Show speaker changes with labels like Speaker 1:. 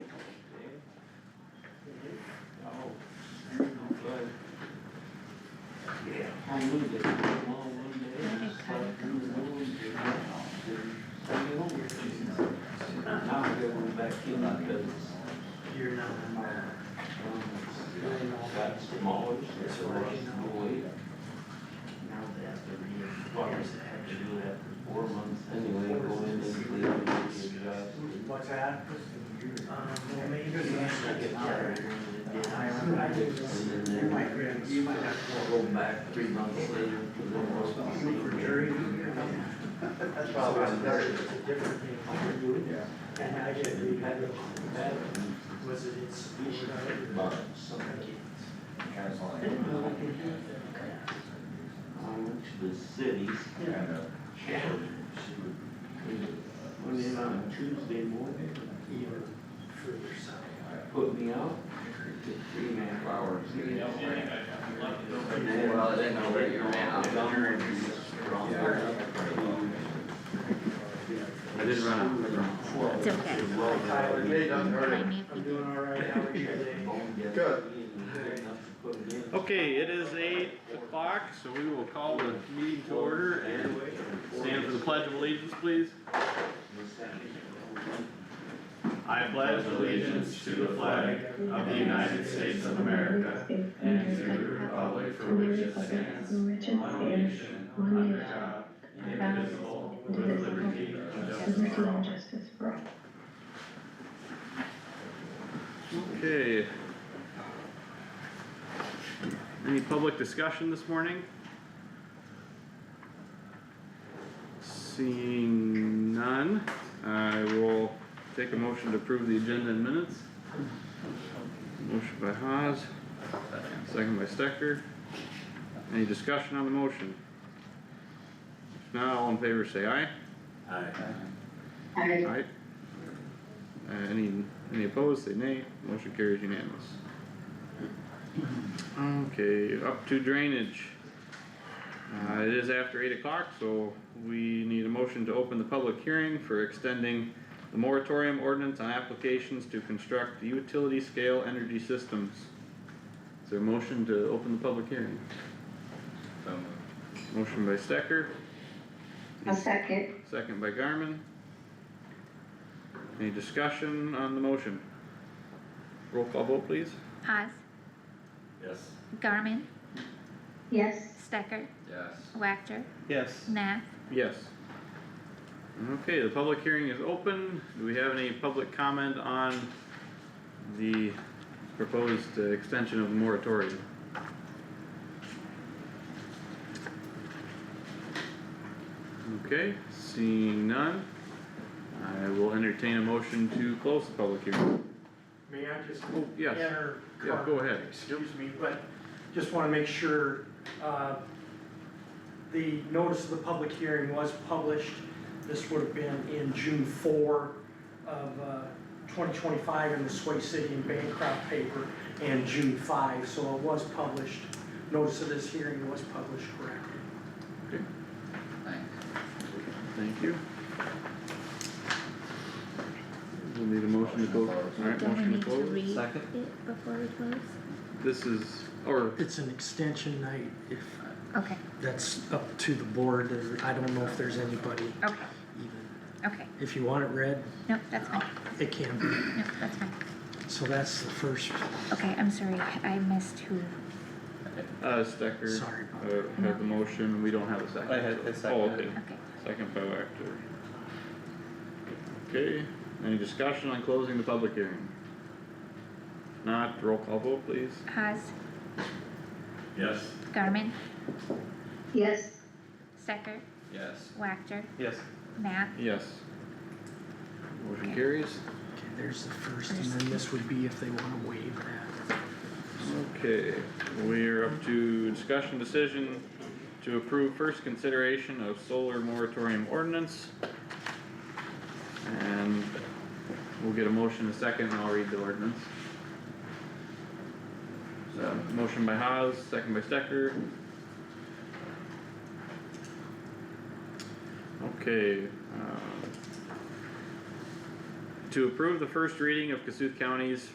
Speaker 1: Now I'm going back in my business.
Speaker 2: You're not.
Speaker 1: Got smaller, so I can go away.
Speaker 2: Now they have to read.
Speaker 1: Well, I guess I had to do that for four months anyway, go in and leave and get a job.
Speaker 2: What's that? Um, well, maybe.
Speaker 1: I get tired.
Speaker 2: I, I do.
Speaker 1: And
Speaker 2: You
Speaker 1: then
Speaker 2: might, be- you might have
Speaker 1: I'll go back three months later to the most.
Speaker 2: to look for jury.
Speaker 3: That's probably better.
Speaker 2: It's a different thing.
Speaker 3: Yeah.
Speaker 2: And I get to read that.
Speaker 1: That
Speaker 2: Was it in school?
Speaker 1: about something.
Speaker 3: Kind of like.
Speaker 1: I went to the cities.
Speaker 3: Kind of.
Speaker 1: Went in on a Tuesday morning,
Speaker 2: Even for yourself.
Speaker 1: put me out, took three and a half hours. to get out. And then-
Speaker 4: Well, I didn't know where you were at.
Speaker 1: I'm done with this wrong.
Speaker 4: I did run out.
Speaker 5: It's okay.
Speaker 1: Well,
Speaker 3: Hey, doesn't hurt it.
Speaker 2: I'm doing all right. How are you today?
Speaker 1: Good.
Speaker 4: Okay, it is eight o'clock, so we will call the meeting to order and stand for the pledge of allegiance, please. I pledge allegiance to the flag of the United States of America and to the republic for which it stands, one nation, under God, indivisible, with liberty and justice for all.
Speaker 6: Justice for all.
Speaker 4: Okay. Any public discussion this morning? Seeing none, I will take a motion to approve the agenda in minutes. Motion by Haas, second by Stecker. Any discussion on the motion? If not, all in favor say aye.
Speaker 6: I,
Speaker 4: Aye. Uh, any, any opposed, say nay, motion carries unanimous. Okay, up to drainage. Uh, it is after eight o'clock, so we need a motion to open the public hearing for extending the moratorium ordinance on applications to construct utility scale energy systems. Is there a motion to open the public hearing? Motion by Stecker,
Speaker 6: a second,
Speaker 4: Second by Garmin. Any discussion on the motion? Roll call vote please.
Speaker 5: Haas,
Speaker 4: Yes.
Speaker 5: Garmin,
Speaker 6: yes,
Speaker 5: Stecker,
Speaker 4: Yes.
Speaker 5: Wactor,
Speaker 4: Yes.
Speaker 5: Nath,
Speaker 4: Yes. Okay, the public hearing is open. Do we have any public comment on the proposed uh, extension of the moratorium? Okay, seeing none, I will entertain a motion to close the public hearing.
Speaker 2: May I just?
Speaker 4: Oh, yes.
Speaker 2: enter
Speaker 4: Yeah, go ahead.
Speaker 2: Excuse me, but just wanna make sure, uh, the notice of the public hearing was published. This would have been in June four of, uh, twenty twenty-five in the Sway City and Bancroft paper, and June five, so it was published. Notice of this hearing was published correctly.
Speaker 4: Thank you. We'll need a motion to close. Alright,
Speaker 5: don't we
Speaker 4: motion
Speaker 5: need
Speaker 4: to
Speaker 5: to
Speaker 4: close.
Speaker 5: read it before we close?
Speaker 4: This is, or
Speaker 7: It's an extension night, if
Speaker 5: Okay,
Speaker 7: that's up to the board, There- I don't know if there's anybody
Speaker 5: okay,
Speaker 7: even.
Speaker 5: okay,
Speaker 7: If you want it read,
Speaker 5: no, that's fine,
Speaker 7: it can be,
Speaker 5: no, that's fine,
Speaker 7: so that's the first,
Speaker 5: okay, I'm sorry, I missed who,
Speaker 4: Uh, Stecker.
Speaker 7: Sorry about that.
Speaker 4: Uh, had the motion, we don't have a second.
Speaker 8: I had-
Speaker 4: so-
Speaker 8: I seconded
Speaker 4: Oh, okay,
Speaker 5: okay.
Speaker 4: second by Wactor. Okay, any discussion on closing the public hearing? If Not, roll call vote please.
Speaker 5: Haas,
Speaker 8: Yes.
Speaker 5: Garmin,
Speaker 6: yes,
Speaker 5: Stecker,
Speaker 8: Yes.
Speaker 5: Wactor,
Speaker 8: Yes.
Speaker 5: Nath,
Speaker 4: Yes. Motion carries.
Speaker 7: okay, there's the first, and then this would be if they wanna waive that.
Speaker 4: Okay, we are up to discussion decision to approve first consideration of solar moratorium ordinance. And we'll get a motion in a second and I'll read the ordinance. So, motion by Haas, second by Stecker. Okay, uh, um, to approve the first reading of Cassuth County's